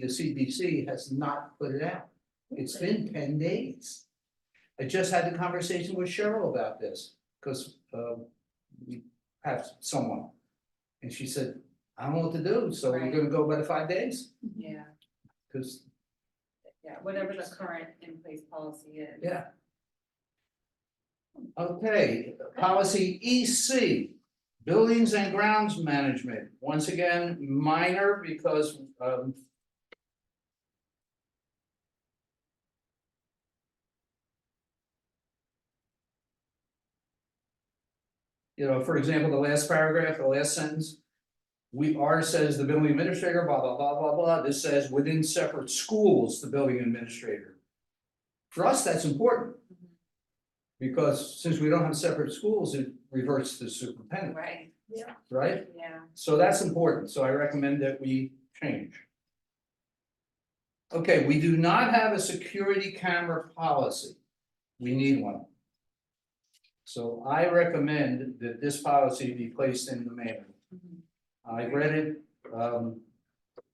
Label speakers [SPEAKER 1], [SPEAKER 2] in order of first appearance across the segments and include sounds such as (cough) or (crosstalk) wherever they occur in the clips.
[SPEAKER 1] the CBC has not put it out. It's been ten days. I just had a conversation with Cheryl about this, cause um we have someone. And she said, I don't know what to do, so we're
[SPEAKER 2] Right.
[SPEAKER 1] gonna go by the five days,
[SPEAKER 2] Yeah,
[SPEAKER 1] cause
[SPEAKER 2] yeah, whatever the current in place policy is.
[SPEAKER 1] Yeah. Okay, policy E EC, buildings and grounds management, once again, minor because um. You know, for example, the last paragraph, the last sentence. We are says the building administrator, blah, blah, blah, blah, blah, this says within separate schools, the building administrator. For us, that's important. Because since we don't have separate schools, it reverts to superintendent,
[SPEAKER 2] Right,
[SPEAKER 1] right?
[SPEAKER 2] yeah,
[SPEAKER 1] So that's important, so I recommend that we change. Okay, we do not have a security camera policy. We need one. So I recommend that this policy be placed in the manual.
[SPEAKER 2] Mhm.
[SPEAKER 1] I read it, um.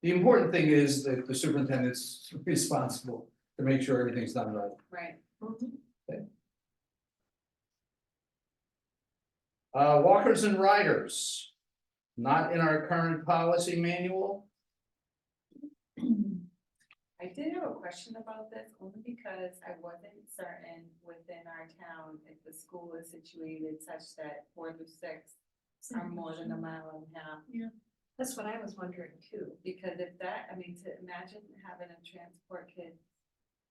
[SPEAKER 1] The important thing is that the superintendent's (laughs) responsible to make sure everything's done right.
[SPEAKER 2] right.
[SPEAKER 1] Uh, walkers and riders, not in our current policy manual.
[SPEAKER 2] I did have a question about this only because I wasn't certain within our town if the school is situated such that four through six are
[SPEAKER 3] Mm-hmm.
[SPEAKER 2] more than a mile and a half.
[SPEAKER 4] That's what I was wondering too.
[SPEAKER 2] Because if that, I mean, to imagine having a transport kid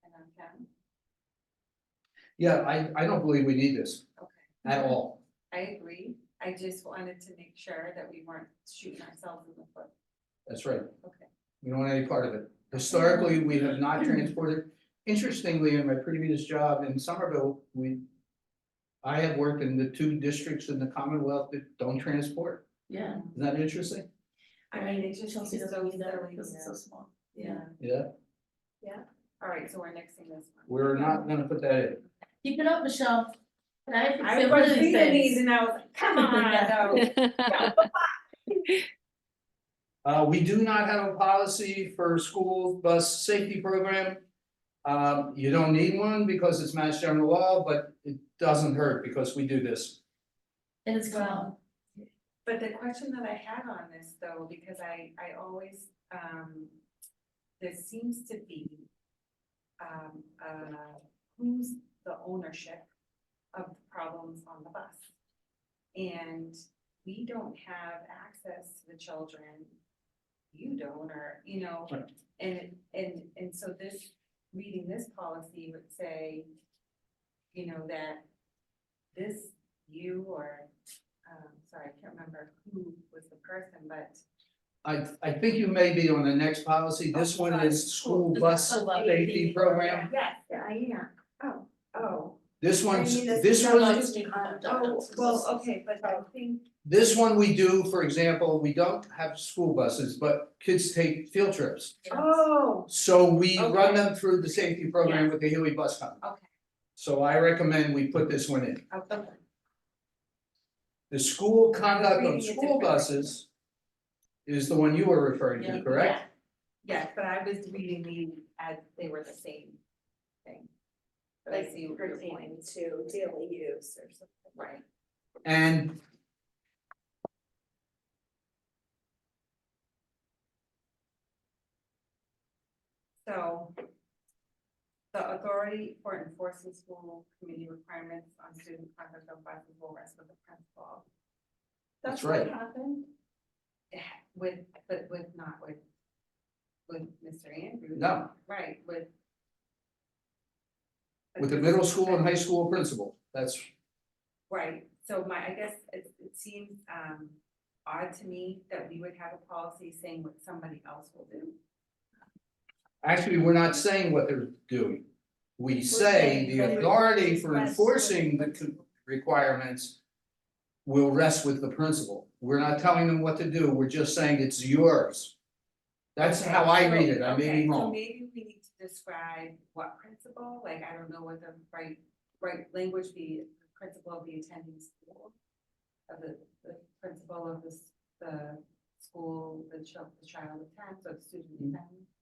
[SPEAKER 2] in our town,
[SPEAKER 1] Yeah, I, I don't believe we need this
[SPEAKER 2] okay.
[SPEAKER 1] at all.
[SPEAKER 2] I agree, I just wanted to make sure that we weren't shooting ourselves in the foot.
[SPEAKER 1] That's right.
[SPEAKER 2] Okay.
[SPEAKER 1] We don't want any part of it. Historically, we have
[SPEAKER 2] (clears throat)
[SPEAKER 1] not transported. Interestingly, in my previous job in Somerville, we. I have worked in the two districts in the Commonwealth that don't transport.
[SPEAKER 3] Yeah,
[SPEAKER 1] Isn't that interesting?
[SPEAKER 4] I mean, it just
[SPEAKER 3] Chelsea
[SPEAKER 4] seems so
[SPEAKER 3] doesn't need that
[SPEAKER 4] silly.
[SPEAKER 3] because it's so small.
[SPEAKER 1] Yeah,
[SPEAKER 2] All right, so we're nixing this one.
[SPEAKER 1] we're not gonna put that in.
[SPEAKER 3] Keep it up, Michelle. Can I fix
[SPEAKER 2] I
[SPEAKER 3] it? What
[SPEAKER 2] was
[SPEAKER 3] is
[SPEAKER 2] reading
[SPEAKER 3] this?
[SPEAKER 2] these and I was like, come on, though.
[SPEAKER 1] Uh, we do not have a policy for school bus safety program. Um, you don't need one because it's mass general law, but it doesn't hurt because we do this.
[SPEAKER 3] It is
[SPEAKER 2] Well,
[SPEAKER 3] gone.
[SPEAKER 2] But the question that I had on this though, because I, I always, um, there seems to be, um, uh, who's the ownership of the problems on the bus? And we don't have access to the children, you don't, or, you know,
[SPEAKER 1] Right.
[SPEAKER 2] and, and, and so this, reading this policy would say, you know, that this, you or um, sorry, I can't remember who was the person, but
[SPEAKER 1] I, I think you may be on the next policy.
[SPEAKER 2] Oh,
[SPEAKER 1] This one is school bus safety program.
[SPEAKER 2] yes, Diane, oh, oh.
[SPEAKER 1] This one's,
[SPEAKER 4] I mean, that's
[SPEAKER 1] this
[SPEAKER 4] not
[SPEAKER 1] one,
[SPEAKER 4] like-
[SPEAKER 2] Oh, well, okay, but I think,
[SPEAKER 1] this one we do, for example, we don't have school buses, but kids take field trips.
[SPEAKER 2] oh,
[SPEAKER 1] So we run
[SPEAKER 2] Okay.
[SPEAKER 1] them through the safety program with the Healy Bus Company.
[SPEAKER 2] Okay.
[SPEAKER 1] So I recommend we put this one in.
[SPEAKER 2] Oh, okay,
[SPEAKER 1] The school conduct
[SPEAKER 2] Reading
[SPEAKER 1] of
[SPEAKER 2] is
[SPEAKER 1] school
[SPEAKER 2] different.
[SPEAKER 1] buses is the one you were referring to,
[SPEAKER 3] Yeah.
[SPEAKER 1] correct?
[SPEAKER 2] yes, but I was reading these as they were the same thing. But I
[SPEAKER 4] Like
[SPEAKER 2] see what your point,
[SPEAKER 4] pertaining to daily use or something.
[SPEAKER 2] right,
[SPEAKER 1] And
[SPEAKER 2] so. The authority for enforcing school committee requirements on student conduct of buses will rest with the principal.
[SPEAKER 1] That's
[SPEAKER 2] what
[SPEAKER 1] right.
[SPEAKER 2] Happened? Yeah, With, but with not with. With Mr. Andrews.
[SPEAKER 1] no,
[SPEAKER 2] Right, with.
[SPEAKER 1] with the middle school and high school principal, that's,
[SPEAKER 2] Right, so my, I guess it, it seems, um, odd to me that we would have a policy saying what somebody else will do.
[SPEAKER 1] actually, we're not saying what they're doing. We say
[SPEAKER 4] saying
[SPEAKER 1] the
[SPEAKER 4] that it-
[SPEAKER 1] authority for
[SPEAKER 4] Yes.
[SPEAKER 1] enforcing the con- requirements will rest with the principal. We're not telling them what to do, we're just saying it's yours. That's
[SPEAKER 2] Okay,
[SPEAKER 1] how I
[SPEAKER 2] so-
[SPEAKER 1] read it, I may
[SPEAKER 2] okay,
[SPEAKER 1] be
[SPEAKER 2] so
[SPEAKER 1] wrong.
[SPEAKER 2] Maybe we need to describe what principal, like, I don't know what the right, right language be, principal of the attending school. Of the, the
[SPEAKER 1] Mm-hmm.
[SPEAKER 2] principal of the, s- the school, the child, the child attends, or the student attends.